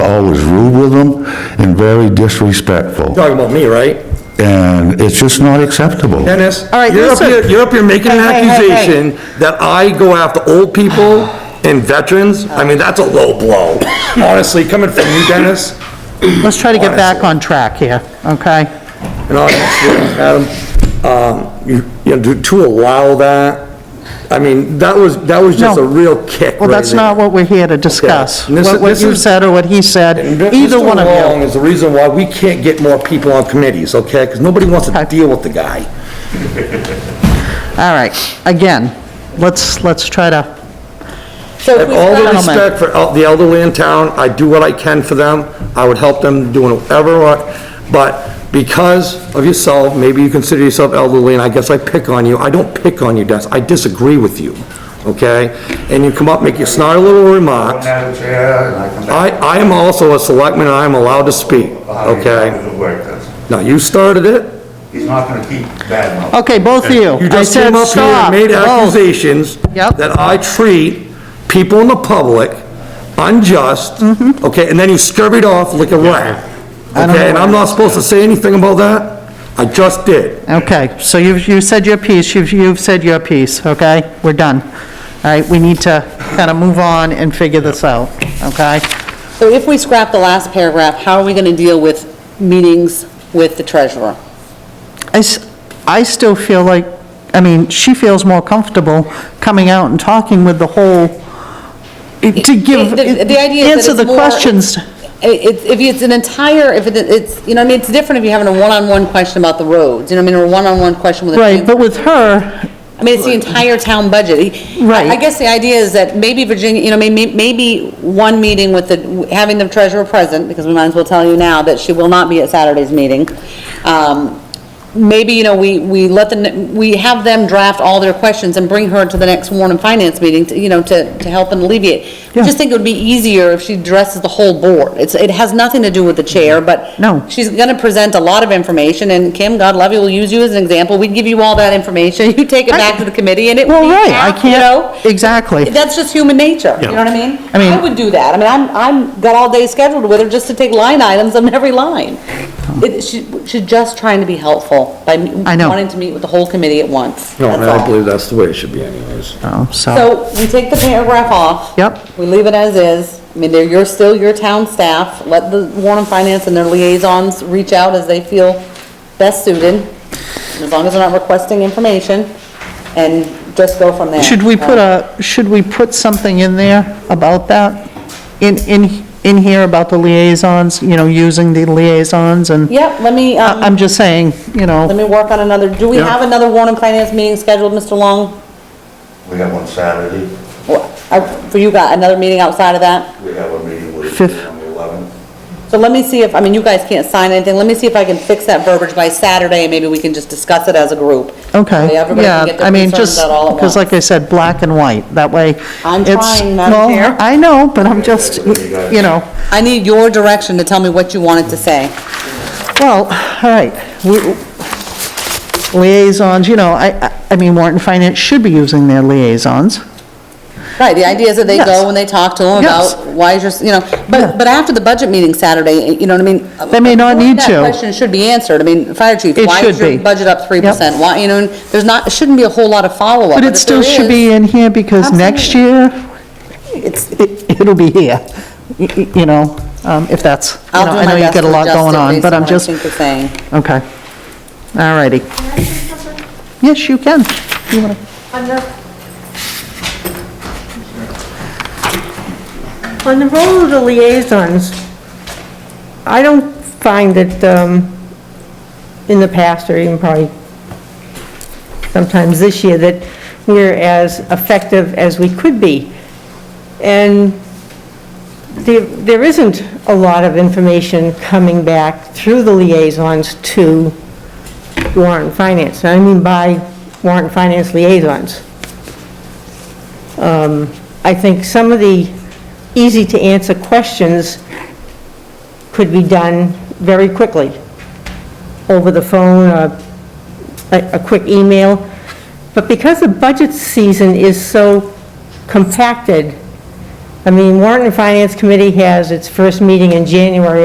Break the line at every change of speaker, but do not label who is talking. very disrespectful,
Talking about me, right?
and it's just not acceptable.
Dennis,
All right,
you're up
listen.
here, you're up here making an
Hey, hey, hey, hey.
accusation that I go after old people and veterans. I mean, that's a low blow. Honestly, coming from you, Dennis,
Let's try to get back on track here, okay?
and honestly, Adam, um, you, you know, to- to allow that, I mean, that was, that was just a
No.
real kick
Well,
right
that's
there.
not what we're here to discuss.
And this
What
is-
what
this
you
is-
said or what he said,
And Mr.
either one of
Long
you.
is the reason why we can't get more people on committees, okay? Because nobody wants to
Okay.
deal with the guy.
All right, again, let's, let's try to,
So
Have
we've
all the
got-
Gentlemen.
respect for el- the elderly in town, I do what I can for them, I would help them doing whatever, I- but because of yourself, maybe you consider yourself elderly, and I guess I pick on you, I don't pick on you, Dennis, I disagree with you, okay? And you come up, make your snide little remarks.
Madam Chair, and I come back.
I, I am also a selectman, and I am allowed to speak, okay?
It'll work, that's-
Now, you started it,
He's not gonna keep bad mouth.
okay, both of you.
You
I
just
said
came up here
stop.
and made
both.
accusations
Yep.
that I treat people in the public unjust, okay, and then you scurried off like a rat.
Mm-hmm. I don't know
Okay, and I'm not supposed to say anything about that? I just did.
Okay, so you've, you said your piece, you've, you've said your piece, okay? We're done. All right, we need to kind of move on and figure this out, okay?
so if we scrap the last paragraph, how are we going to deal with meetings with the treasurer?
I, s- I still feel like, I mean, she feels more comfortable coming out and talking with the whole, to give,
The the idea is
answer the
that it's more-
questions.
It- If it's an entire, if it- it's, you know, I mean, it's different if you're having a one-on-one question about the roads, you know, what I mean, or a one-on-one question with a.
Right, but with her,
I mean, it's the entire town budget. I-
Right.
I guess the idea is that maybe Virginia, you know, maybe, maybe one meeting with the, having the treasurer present, because we might as well tell you now that she will not be at Saturday's meeting. Um, Maybe, you know, we, we let them, we have them draft all their questions and bring her to the next Warren and Finance meeting, to, you know, to, to help and alleviate. I just think it would be easier if she addresses the whole board. It's, it has nothing to do with the chair, but.
No.
She's gonna present a lot of information, and Kim, God love you, will use you as an example. We give you all that information, you take it back to the committee, and it
well,
will be
right, I
half, you know?
can't, exactly.
That's just human nature, you know what I mean?
I mean-
would do that, I mean, I'm, I'm, got all day scheduled with her just to take line items on every line. It, she, she's just trying to be helpful by m-
I know.
wanting to meet with the whole committee at once,
No, and
that's
I
all.
believe that's the way it should be anyways.
Oh, so,
So, we take the paragraph off.
Yep.
We leave it as is, I mean, they're, you're still your town staff, let the Warren and Finance and their liaisons reach out as they feel best suited, as long as they're not requesting information, and just go from there. Uh,
should we put a, should we put something in there about that? In, in, in here about the liaisons, you know, using the liaisons and,
Yep, let me,
I-
um.
I'm just saying, you
Let
know,
me work on another, do we
Yeah.
have another Warren and Finance meeting scheduled, Mr. Long?
We have one Saturday,
Or- uh, For you got another meeting outside of that?
we have a meeting with
Fifth.
on the 11th.
So let me see if, I mean, you guys can't sign anything, let me see if I can fix that verbiage by Saturday, and maybe we can just discuss it as a group.
okay,
That way everybody can
yeah,
get their
I mean,
concerns
just,
out all at
because
once.
like I said, black and white, that way.
I'm
it's-
trying, Madam
well,
Chair.
I know, but I'm just, you know,
I need your direction to tell me what you wanted to say.
well, all right, we- liaisons, you know, I, I- I mean, Warren Finance should be using their liaisons.
Right, the idea is that they
Yes.
go and they talk to them
Yes.
about why is your, you know,
Yeah.
but, but after the budget meeting Saturday, you know what I mean?
They may not need to.
That question should be answered, I mean, fire chief,
It
why
should
is your
be.
budget up three percent? Why, you know, and there's not, it shouldn't be a whole lot of follow-up.
But it
if
still
there
should
is-
be in here, because next year, it's, it- it'll be here, y- y- you know, um, if that's, you
I'll
know,
do
I know
my
you've
best
got a
to
lot
adjust
going
it
on,
based
but
on
I'm
what I
just,
think you're saying.
okay, all righty. Yes, you can. You wanna-
Under, on the role of the liaisons, I don't find that, um, in the past, or even probably sometimes this year, that we're as effective as we could be. And there, there isn't a lot of information coming back through the liaisons to warrant and finance. And I mean by warrant and finance liaisons. Um, I think some of the easy-to-answer questions could be done very quickly, over the phone, or a, a quick email. But because the budget season is so compacted, I mean, warrant and finance committee has its first meeting in January